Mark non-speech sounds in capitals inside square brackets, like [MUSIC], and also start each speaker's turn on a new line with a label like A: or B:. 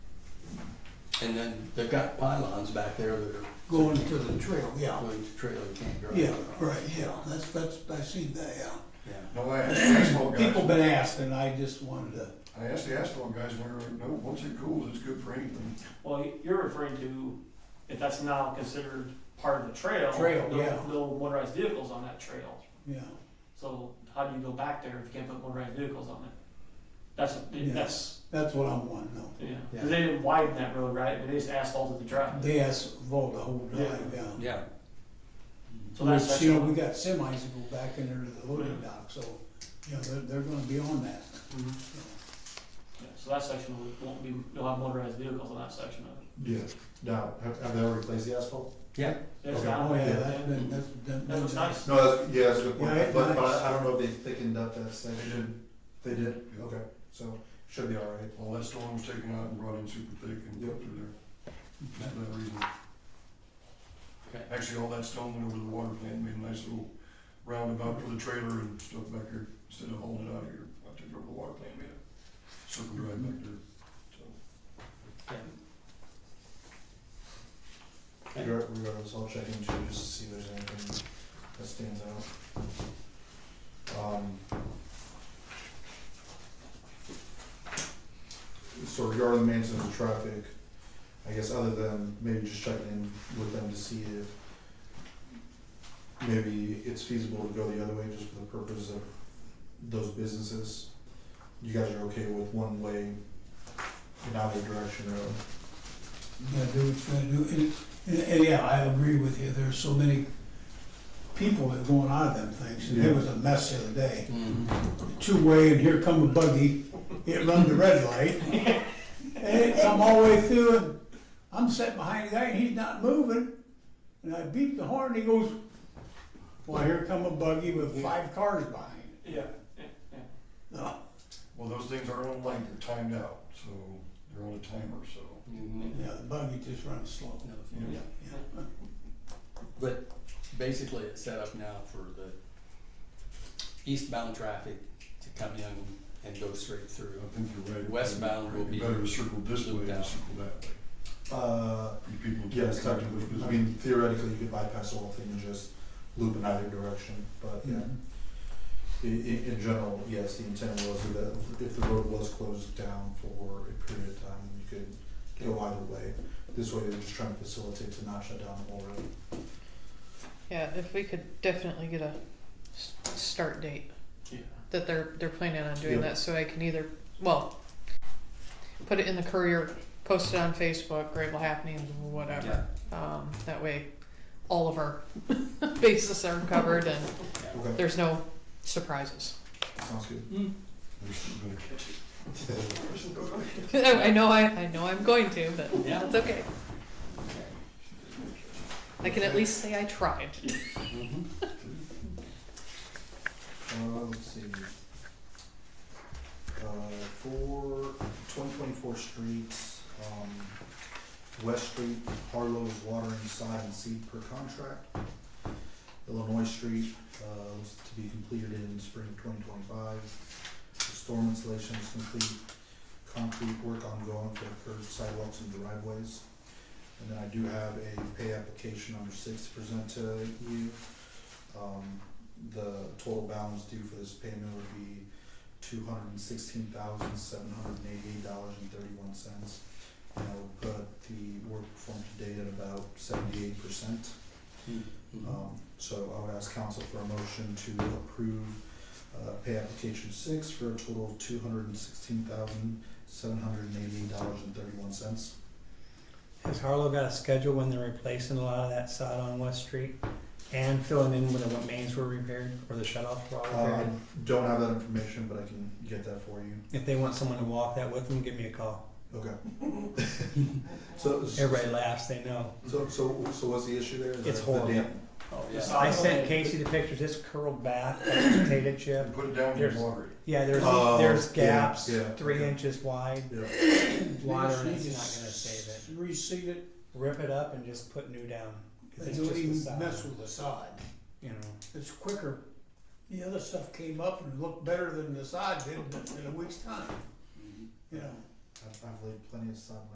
A: And then they've got pylons back there that are.
B: going to the trail, yeah.
A: Going to trail, you can't drive.
B: Yeah, right, yeah, that's, that's, I've seen that, yeah.
A: Yeah.
C: No, I asked the asphalt
B: People
C: guys,
B: been asking, I just wanted to,
C: I asked the asphalt guys, and they were like, no, once it cools, it's good for anything.
D: Well, you're referring to, if that's now considered part of the trail.
B: Trail,
D: no-
B: yeah.
D: No motorized vehicles on that trail.
B: yeah,
D: So how do you go back there if you can't put motorized vehicles on it? That's,
B: Yeah.
D: that's,
B: that's what I want to know.
D: yeah,
A: Yeah.
D: 'Cause they didn't widen that road, right? They just asphalted the drive.
B: They asked Vol the whole drive, yeah.
A: Yeah.
D: So that's
B: Which, You know, we
D: section.
B: got semis that go back in there to the loading
D: uh, Yeah.
B: dock, so, you know, they're, they're gonna be on that.
D: Mhm. mm-hmm. Yeah, So that section will- won't be, you'll have motorized vehicles on that section of it.
E: Yeah, now, have, have they replaced the asphalt?
A: Yeah,
D: There's
E: Okay.
D: that
B: Oh,
D: one,
B: yeah,
D: yeah.
B: that's been, that's been.
D: That looks nice.
E: No, that's, yeah, that's a good point,
B: Yeah, it-
E: but, but I- I don't know if they thickened up that section. They did,
C: Yeah.
E: okay, so, should be all right.
C: All that storm was taken out and brought in super thick and put through there, just for that reason.
A: okay.
C: Actually, all that stone went over to the water plant, and made a nice little roundabout for the trailer and stuff back here, instead of hauling it out of here. I took it over to the water plant, made a circle drive back there, so.
A: Okay.
E: Regar- Regardless, I'll check into it just to see if there's anything that stands out. Um, So regarding the maintenance of traffic, I guess other than maybe just checking in with them to see if maybe it's feasible to go the other way just for the purpose of those businesses. You guys are okay with one way in either direction road?
B: Yeah, do what you gotta do, and, and, and yeah, I agree with you, there's so many people that are going out of them things, and it
E: Yeah.
B: was a mess the other day.
A: Mm-hmm.
B: two-way and here come a buggy, it run the red light. And it come all the way through and I'm sitting behind the guy and he's not moving. And I beep the horn, he goes, well, here come a buggy with five cars behind Oh, it.
D: Yeah, yeah, yeah.
B: No,
C: Well, those things aren't on light, they're timed out, so they're on a timer, so.
A: Mhm.
B: yeah, the buggy just runs slow.
A: No,
C: Yeah.
B: Yeah.
A: But basically, it's set up now for the eastbound traffic to come in and go straight through.
C: I think you're right.
A: Westbound will be
C: Better to circle this way
A: looped
C: than
A: out.
C: circle that way.
E: Uh,
C: You people.
E: Yes, technically, I mean theoretically, you could bypass the whole thing and just loop in either direction, but yeah.
B: Mm-hmm.
E: I- i- in general, yes, the intent was that if the road was closed down for a period of time, you could go either way. This way, they're just trying to facilitate to not shut down the whole road.
F: Yeah, if we could definitely get a s- start date
A: Yeah.
F: that they're they're planning on doing
E: Yeah.
F: that, so I can either well put it in the courier, post it on Facebook, Grable happenings, whatever. Um, that way, all of our [LAUGHS] bases are covered and
E: Okay,
F: there's no surprises. [LAUGHS]
E: sounds good.
C: They're still gonna catch it. They're still gonna catch it.
F: I know I, I know I'm going to, but
A: Yeah.
F: it's okay. I can at least say I tried.
A: Mhm.
E: Uh, let's see. Uh, for twenty twenty-four streets, um, West Street, Harlow's watering side and seed per contract. Illinois Street, uh, was to be completed in spring of twenty twenty-five. Storm installation is complete, concrete work ongoing for the curb sidewalks and driveways. And then I do have a pay application number six to present to you. Um, the total balance due for this payment would be two hundred and sixteen thousand, seven hundred and eighty-eight dollars and thirty-one cents. And I would put the work performed to date at about seventy-eight percent.
A: Mhm.
E: Um, so I would ask council for a motion to approve, uh, pay application six for a total of two hundred and sixteen thousand, seven hundred and eighty-eight dollars and thirty-one cents.
G: Has Harlow got a schedule when they're replacing a lot of that sod on West Street and filling in when the mains were repaired or the shut-offs were all
E: Uh, I
G: repaired?
E: don't have that information, but I can get that for you.
G: If they want someone to walk that with them, give me a call. [LAUGHS]
E: Okay. So, so,
G: Everybody laughs, they know.
E: so, so what's the issue there? Is
G: It's
E: that the
G: horrible.
E: dam?
A: Oh,
D: Yes.
A: yeah.
G: I sent Casey the pictures, it's curled back, like a potato chip.
C: Put it down
G: There's-
C: and water it.
G: Yeah, there's,
E: Oh,
G: there's
E: yeah,
G: gaps,
E: yeah,
G: three
E: okay.
G: inches wide,
E: Yeah.
G: water, and
B: They
G: it's
B: just
G: not
B: need
G: gonna
B: to
G: save
B: Reseed
G: it.
B: it,
G: Rip it up and just put new down. 'cause
B: they
G: it's
B: don't
G: just the
B: even
G: sod,
B: mess with the sod.
G: You know,
B: It's quicker. The other stuff came up and looked better than the sod did in a week's time,
A: Mhm.
B: you know.
E: I've, I've laid plenty of sod